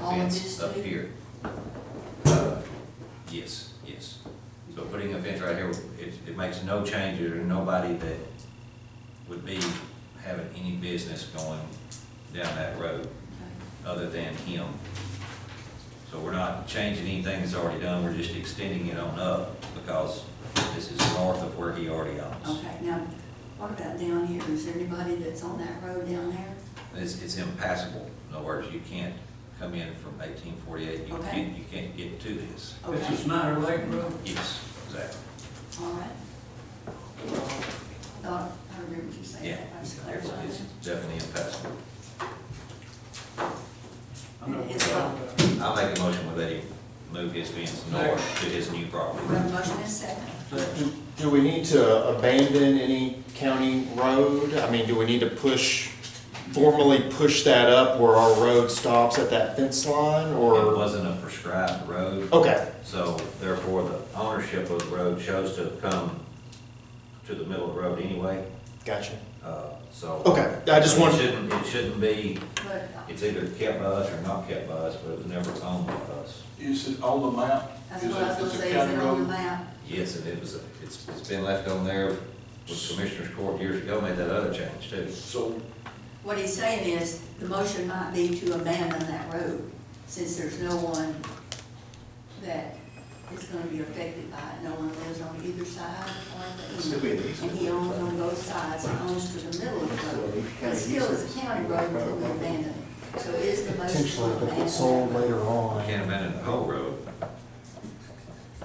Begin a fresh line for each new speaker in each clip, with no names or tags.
All of
fence
this
up
too?
here. Uh, Yes, yes. So putting a fence right here, it, it makes no changes, or nobody that would be having any business going down that road other than him. So we're not changing anything that's already done, we're just extending it on up because this is north of where he already owns.
Okay, now, what about down here? Is there anybody that's on that road down there?
It's, it's impassable. In other words, you can't come in from eighteen forty-eight, you
Okay.
can't, you can't get to this.
This is
Okay,
Snyder Lake Road.
Yes, exactly.
all right. Thought, I remember you saying
Yeah,
that. I was
it's
clarifying.
it's definitely impassable.
I know.
It's up.
I'll make a motion with that he move his fence north to his new property.
We have a motion and a second.
Do- Do we need to abandon any county road? I mean, do we need to push, formally push that up where our road stops at that fence line,
It
or?
wasn't a prescribed road.
Okay,
So therefore, the ownership of the road chose to come to the middle of the road anyway,
gotcha.
uh, so.
Okay, I just
It
wanted-
shouldn't, it shouldn't be,
But,
it's either kept by us or not kept by us, but it was never owned by us.
Is it on the map?
that's
Is
what I was
it-
gonna
it's a
say, is
county
it on the
road?
map?
Yes, and it was, a- it's, it's been left on there with Commissioner's Court years ago, made that other change too.
So,
What he's saying is, the motion might be to abandon that road, since there's no one that is gonna be affected by it. No one lives on either side or
Still
the
be
end.
an easement.
And he owns on both sides, and owns to the middle of the road. But still, it's a county road until we abandon it. So is the motion to
Potentially, if it
abandon
gets sold
that road?
later on.
Can't abandon the whole road.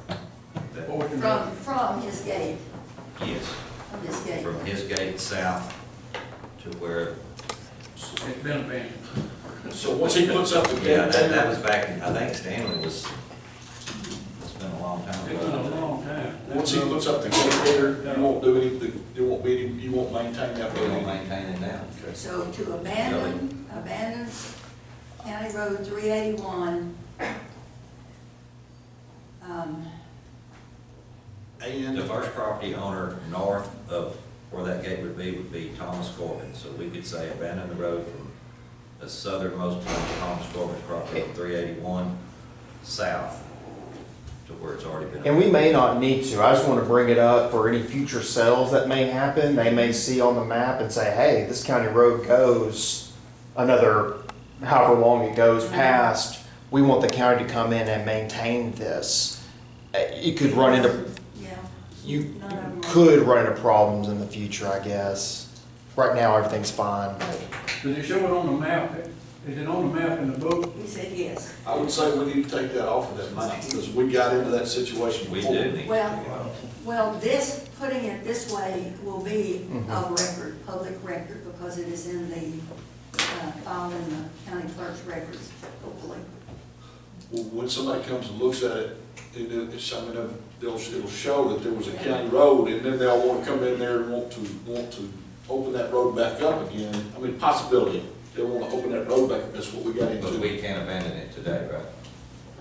That-
what we can,
From, from his gate,
Yes,
from his gate.
from his gate south to where,
it's been abandoned. So once he puts up the gate
yeah, that, that
there,
was back, in I think Stanley was, it's been a long time
It's been a
ago.
long time.
once he puts up the gate there, you won't do any, there won't be, any- you won't maintain that
We don't
road.
maintain it now.
Okay.
So to abandon, abandon County Road three eighty-one. Um,
And
The first property owner north of where that gate would be would be Thomas Corbin, so we could say abandon the road from the southernmost point of Thomas Corbin's property, three eighty-one, south to where it's already been.
And we may not need to, I just want to bring it up for any future sales that may happen. They may see on the map and say, hey, this county road goes another however long it goes past. We want the county to come in and maintain this. Uh, You could run into,
yeah.
you
Not on-
could run into problems in the future, I guess. Right now, everything's fine.
Does it show it on the map? Is it on the map in the book?
He said yes.
I would say we need to take that off of that map, because we got into that situation
We
before.
do need to.
Well- Well, this, putting it this way will be
Mm-hmm.
a record, public record, because it is in the, uh, file in the county clerk's records, hopefully.
Well, When somebody comes and looks at it, it, it, some of them, they'll, it'll show that there was a county road, and then they'll wanna come in there and want to, want to open that road back up again. I mean, possibility, they wanna open that road back, up. that's what we got
But
into.
we can't abandon it today, right?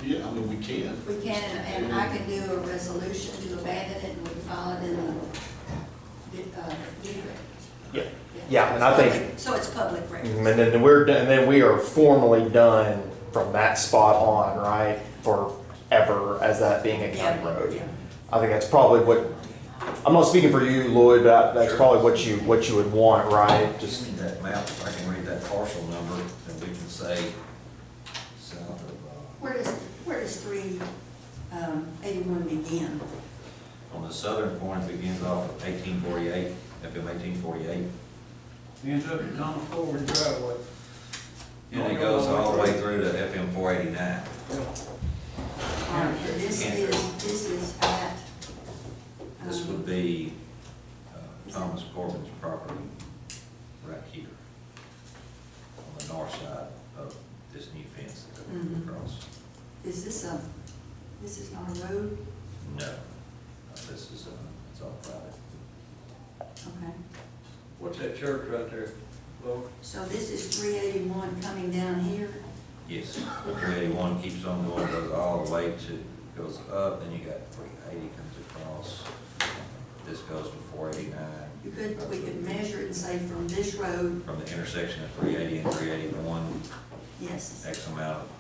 Yeah, I mean, we can.
We can, and and I can do a resolution to abandon it, and we can file it in the, uh, deed records.
Yeah. Yeah, and I think
So it's public record.
And then we're done, and then we are formally done from that spot on, right? Forever as that being a county
Yeah,
road.
yeah.
I think that's probably what, I'm not speaking for you, Lloyd, but that's
Sure.
probably what you, what you would want, right?
Just
Just,
need that map, if I can read that parcel number, then we can say south of, uh,
Where does, where does three, um, eighty-one begin?
on the southern corner begins off of eighteen forty-eight, FM eighteen forty-eight.
Ends up at Thomas Ford driveway.
And it goes all the way through to FM four eighty-nine.
Um, and this
Andrew.
is, this is at.
This
um,
would be uh, Thomas Corbin's property right here on the north side of this new fence that we're going
Mhm.
across.
Is this a, this is not a road?
No, no, this is, uh, it's all private.
Okay.
What's that church right there? Well,
So this is three eighty-one coming down here?
Yes, three eighty-one keeps on going, goes all the way to, goes up, then you got three eighty comes across. This goes to four eighty-nine.
You could, we could measure it and say from this road,
From the intersection of three eighty and three eighty-one,
yes.
X amount of